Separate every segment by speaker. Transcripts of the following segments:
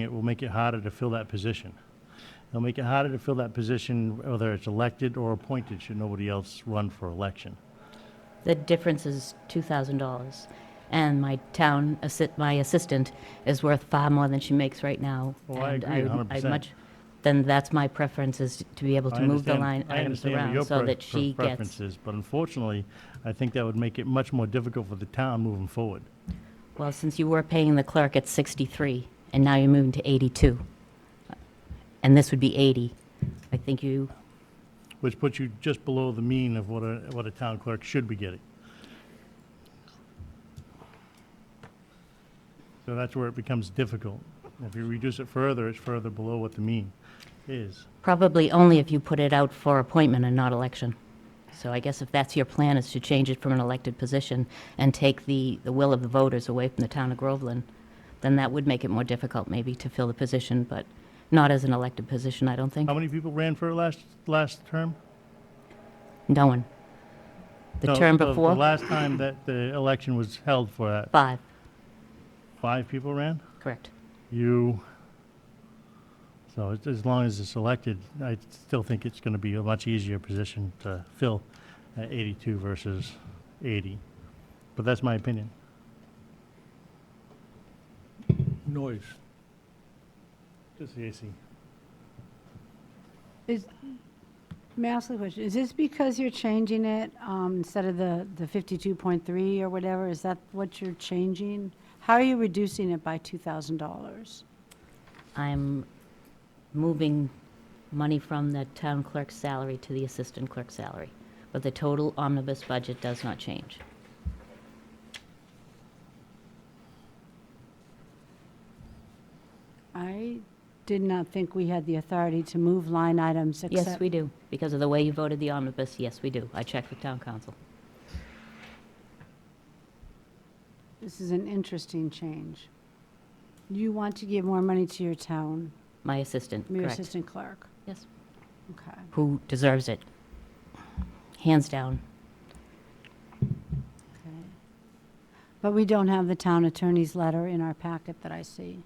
Speaker 1: it will make it harder to fill that position. It'll make it harder to fill that position, whether it's elected or appointed, should nobody else run for election.
Speaker 2: The difference is $2,000. And my town, assi- my assistant is worth far more than she makes right now.
Speaker 1: Well, Oh, I
Speaker 2: and
Speaker 1: agree
Speaker 2: would-
Speaker 1: 100%.
Speaker 2: much- Then that's my preference is to be able
Speaker 1: I
Speaker 2: to move the
Speaker 1: understand-
Speaker 2: line
Speaker 1: I
Speaker 2: items
Speaker 1: understand what
Speaker 2: around
Speaker 1: your
Speaker 2: so
Speaker 1: pre-
Speaker 2: that she
Speaker 1: pre-
Speaker 2: gets,
Speaker 1: preferences, But unfortunately, I think that would make it much more difficult for the town moving forward.
Speaker 2: well, since you were paying the clerk at 63 and now you're moving to 82. And this would be 80. I think you,
Speaker 1: which puts you just below the mean of what a, what a town clerk should be getting. So that's where it becomes difficult. If you reduce it further, it's further below what the mean is.
Speaker 2: probably only if you put it out for appointment and not election. So I guess if that's your plan, is to change it from an elected position and take the, the will of the voters away from the town of Groveland, then that would make it more difficult maybe to fill the position, but not as an elected position, I don't think.
Speaker 1: How many people ran for last, last term?
Speaker 2: No one. The
Speaker 1: No,
Speaker 2: term
Speaker 1: The
Speaker 2: before,
Speaker 1: last time that the election was held for that,
Speaker 2: five,
Speaker 1: five people ran?
Speaker 2: correct.
Speaker 1: You, so it's- as long as it's elected, I still think it's going to be a much easier position to fill at 82 versus 80. But that's my opinion.
Speaker 3: noise.
Speaker 1: Just the AC.
Speaker 4: Is, may I ask a question? Is this because you're changing it um, instead of the, the 52.3 or whatever? Is that what you're changing? How are you reducing it by $2,000?
Speaker 2: I'm moving money from the town clerk's salary to the assistant clerk's salary, but the total omnibus budget does not change.
Speaker 4: I did not think we had the authority to move line items except.
Speaker 2: Yes, we do. Because of the way you voted the omnibus, yes, we do. I checked with town council.
Speaker 4: This is an interesting change. You want to give more money to your town,
Speaker 2: My assistant,
Speaker 4: your
Speaker 2: correct.
Speaker 4: assistant clerk?
Speaker 2: Yes.
Speaker 4: Okay.
Speaker 2: Who deserves it. Hands down.
Speaker 4: okay. But we don't have the town attorney's letter in our packet that I see.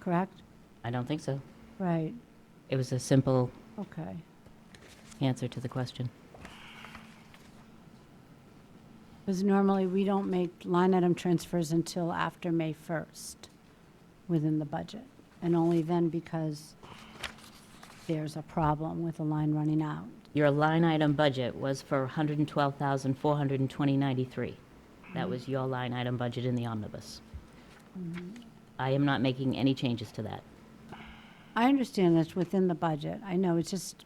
Speaker 4: Correct?
Speaker 2: I don't think so.
Speaker 4: Right,
Speaker 2: It was a simple
Speaker 4: okay.
Speaker 2: answer to the question.
Speaker 4: Because normally, we don't make line item transfers until after May 1st within the budget, and only then because there's a problem with a line running out.
Speaker 2: Your line item budget was for $112,420.93. That was your line item budget in the omnibus.
Speaker 4: Mm-hmm.
Speaker 2: I am not making any changes to that.
Speaker 4: I understand that's within the budget, I know, it's just,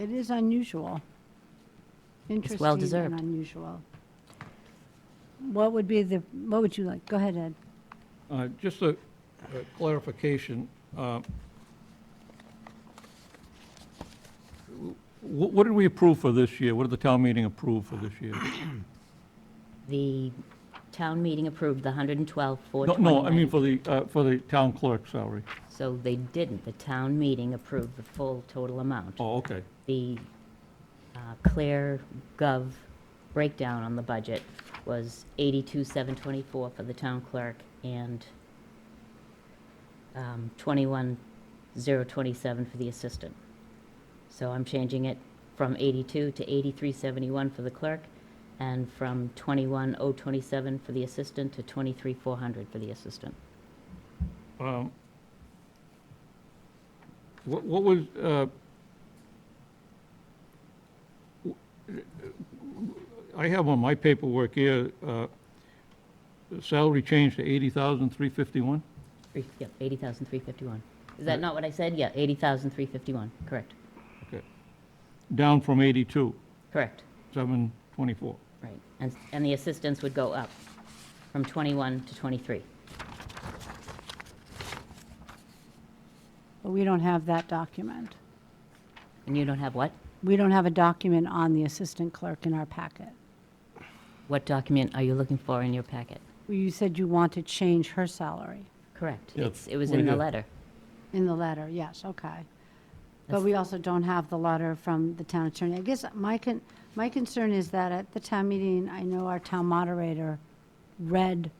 Speaker 4: it is unusual.
Speaker 2: well
Speaker 4: Interesting and
Speaker 2: deserved.
Speaker 4: unusual. What would be the, what would you like, go ahead, Ed.
Speaker 3: Uh, Just a a clarification. uh, wh- What did we approve for this year? What did the town meeting approve for this year?
Speaker 2: The town meeting approved the
Speaker 3: No,
Speaker 2: $112,420.93.
Speaker 3: no, I mean for the, uh, for the town clerk salary.
Speaker 2: So they didn't. The town meeting approved the full total amount.
Speaker 3: Oh, okay.
Speaker 2: The uh, Claire Gov breakdown on the budget was eighty-two, seven twenty-four for the town clerk and um, twenty-one, zero twenty-seven for the assistant. So I'm changing it from eighty-two to eighty-three, seventy-one for the clerk and from twenty-one, oh twenty-seven for the assistant to twenty-three, four hundred for the assistant.
Speaker 3: Um, What what was, uh, w- I have on my paperwork here, uh, salary change to 80,351?
Speaker 2: Three, yep, eighty thousand three fifty-one. Is that not what I said? Yeah, eighty thousand three fifty-one, correct,
Speaker 3: Okay. Down from 82,
Speaker 2: correct,
Speaker 3: 724.
Speaker 2: right. And, and the assistants would go up from twenty-one to twenty-three.
Speaker 4: But we don't have that document.
Speaker 2: And you don't have what?
Speaker 4: We don't have a document on the assistant clerk in our packet.
Speaker 2: What document are you looking for in your packet?
Speaker 4: You said you want to change her salary
Speaker 2: Correct,
Speaker 3: Yeah,
Speaker 2: it's, it was
Speaker 3: right
Speaker 2: in the
Speaker 3: here.
Speaker 2: letter.
Speaker 4: in the letter, yes, okay. But
Speaker 2: That's-
Speaker 4: we also don't have the letter from the town attorney. I guess my con, my concern is that at the town meeting, I know our town moderator read